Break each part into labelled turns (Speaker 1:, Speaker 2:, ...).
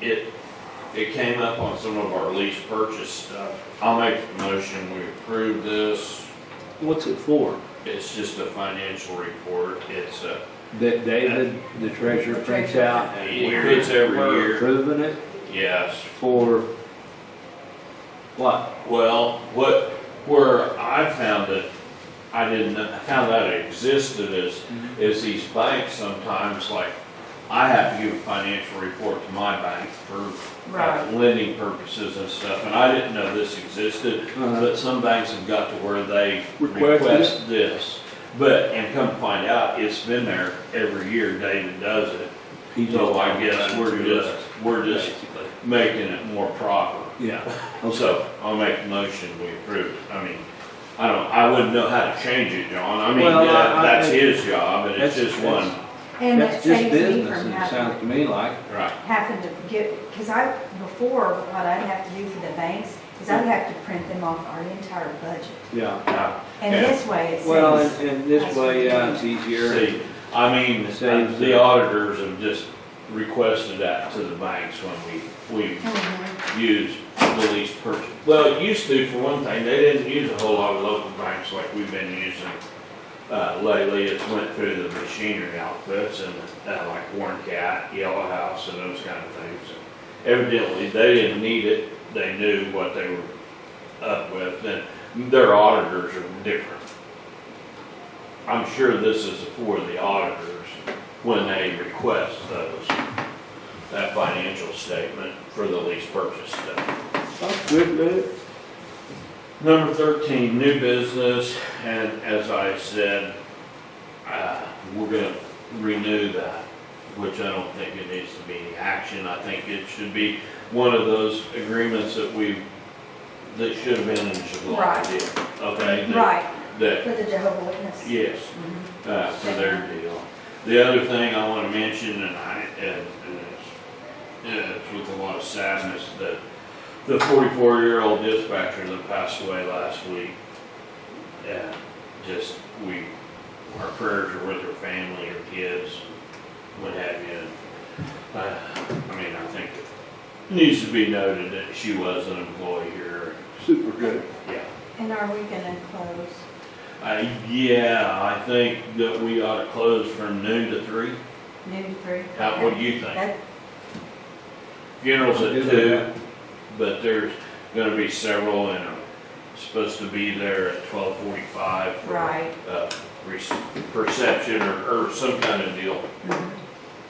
Speaker 1: it, it came up on some of our lease purchase stuff. I'll make the motion, we approve this.
Speaker 2: What's it for?
Speaker 1: It's just a financial report, it's a,
Speaker 2: That David, the treasurer, prints out? and
Speaker 1: He
Speaker 2: we're-
Speaker 1: prints every
Speaker 2: we're
Speaker 1: year.
Speaker 2: Approving it
Speaker 1: yes.
Speaker 2: for what?
Speaker 1: Well, what, where I found it, I didn't know how that existed is,
Speaker 2: Mm-hmm.
Speaker 1: is these banks sometimes, like, I have to give a financial report to my bank for uh,
Speaker 3: Right.
Speaker 1: lending purposes and stuff, and I didn't know this existed,
Speaker 2: Uh-huh.
Speaker 1: but some banks have got to where they
Speaker 2: Request it?
Speaker 1: request this. But, and come to find out, it's been there every year, David does it,
Speaker 2: He just-
Speaker 1: so I guess we're just, we're just making it more proper.
Speaker 2: Yeah,
Speaker 1: So I'll make the motion, we approve it. I mean, I don't, I wouldn't know how to change it, John. I mean,
Speaker 2: Well, I-
Speaker 1: that-
Speaker 2: I-
Speaker 1: that's his job and it's
Speaker 2: That's-
Speaker 1: just one,
Speaker 3: And that
Speaker 2: that's just
Speaker 3: saves me
Speaker 2: business,
Speaker 3: from
Speaker 2: and it sounds
Speaker 3: having,
Speaker 2: to me like,
Speaker 1: right.
Speaker 3: having to get, because I, before, what I'd have to do for the banks is I'd have to print them off our entire budget.
Speaker 2: yeah.
Speaker 1: yeah.
Speaker 3: And
Speaker 1: Yeah.
Speaker 3: this way it
Speaker 2: Well,
Speaker 3: saves,
Speaker 2: and, and this way, uh, it's easier.
Speaker 1: See, I mean,
Speaker 2: Saves
Speaker 1: the
Speaker 2: it.
Speaker 1: auditors have just requested that to the banks when we, we use the lease purchase. Well, it used to, for one thing, they didn't use a whole lot of local banks like we've been using uh, lately. It's went through the machinery outfits and uh, like Warren Cat, Yellow House and those kind of things. Evidently, they didn't need it. They knew what they were up with and their auditors are different. I'm sure this is for the auditors when they request those, that financial statement for the lease purchase stuff.
Speaker 2: That's good, Lou.
Speaker 1: Number thirteen, new business, and as I said, uh, we're gonna renew that, which I don't think it needs to be any action. I think it should be one of those agreements that we, that should have been in July.
Speaker 3: Right.
Speaker 1: deal, Okay? that-
Speaker 3: right,
Speaker 1: That
Speaker 3: for the Jehovah Witness. Mm-hmm.
Speaker 1: Yes, uh, for their deal. The other thing I wanna mention, and I, and, and it's, yeah, it's with a lot of sadness, that the forty-four-year-old dispatcher that passed away last week, yeah, just, we, our prayers are with her family, her kids, what have you. Uh, I mean, I think it needs to be noted that she was an employee here,
Speaker 2: Super good.
Speaker 1: yeah.
Speaker 3: And are we gonna close?
Speaker 1: Uh, yeah, I think that we ought to close from noon to three.
Speaker 3: Noon three?
Speaker 1: How, Uh, what do you think?
Speaker 3: That,
Speaker 1: Funeral's
Speaker 2: I'll do
Speaker 1: at
Speaker 2: that.
Speaker 1: two, but there's gonna be several and I'm supposed to be there at twelve forty-five.
Speaker 3: right.
Speaker 1: Uh, re- perception or, or some kind of deal.
Speaker 3: Mhm.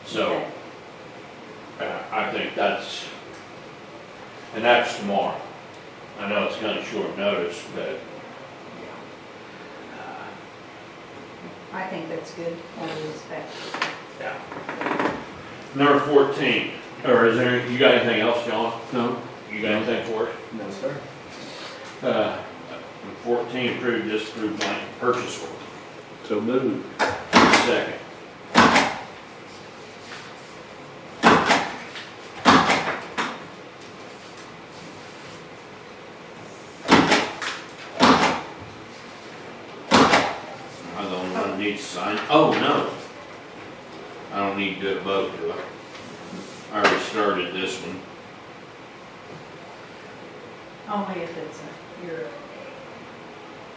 Speaker 1: So,
Speaker 3: Okay.
Speaker 1: uh, I think that's, and that's tomorrow. I know it's kinda short notice, but
Speaker 3: I think that's good, all due respect.
Speaker 1: yeah. Number fourteen, or is there, you got anything else, John?
Speaker 2: No?
Speaker 1: You got anything for us?
Speaker 2: No, sir.
Speaker 1: Uh, Fourteen, approved this through blank purchase order.
Speaker 2: So moved.
Speaker 1: Second. I don't want to need to sign, oh, no. I don't need to do a vote, do I? I already started this one.
Speaker 3: Only if it's a, you're,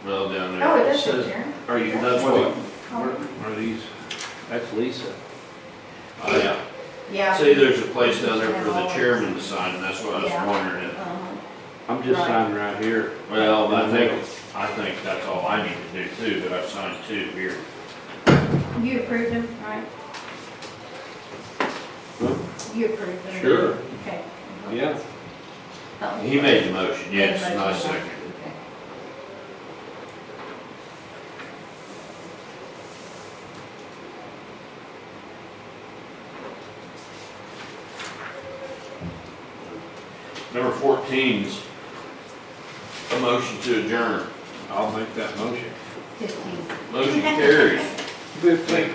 Speaker 1: Well, down there.
Speaker 3: oh, it is
Speaker 1: says-
Speaker 3: a Karen.
Speaker 1: Are you, that's what,
Speaker 2: Are these? That's Lisa.
Speaker 1: oh, yeah.
Speaker 3: Yeah.
Speaker 1: See, there's a place down there for the chairman to sign, and that's what I was
Speaker 3: Yeah.
Speaker 1: wondering if,
Speaker 3: Uh-huh.
Speaker 2: I'm just
Speaker 3: Right.
Speaker 2: signing right here.
Speaker 1: well, I think, I think that's all I need to do too, but I've signed two here.
Speaker 3: You approved them, right? You approved them?
Speaker 1: Sure.
Speaker 3: Okay.
Speaker 2: Yeah.
Speaker 3: Oh.
Speaker 1: He made the motion, yes,
Speaker 3: Made the
Speaker 1: and I
Speaker 3: motion, yeah.
Speaker 1: seconded.
Speaker 3: Okay.
Speaker 1: Number fourteen's a motion to adjourn.
Speaker 2: I'll make that motion.
Speaker 3: Fifteen.
Speaker 1: Motion carries.
Speaker 2: Good thing.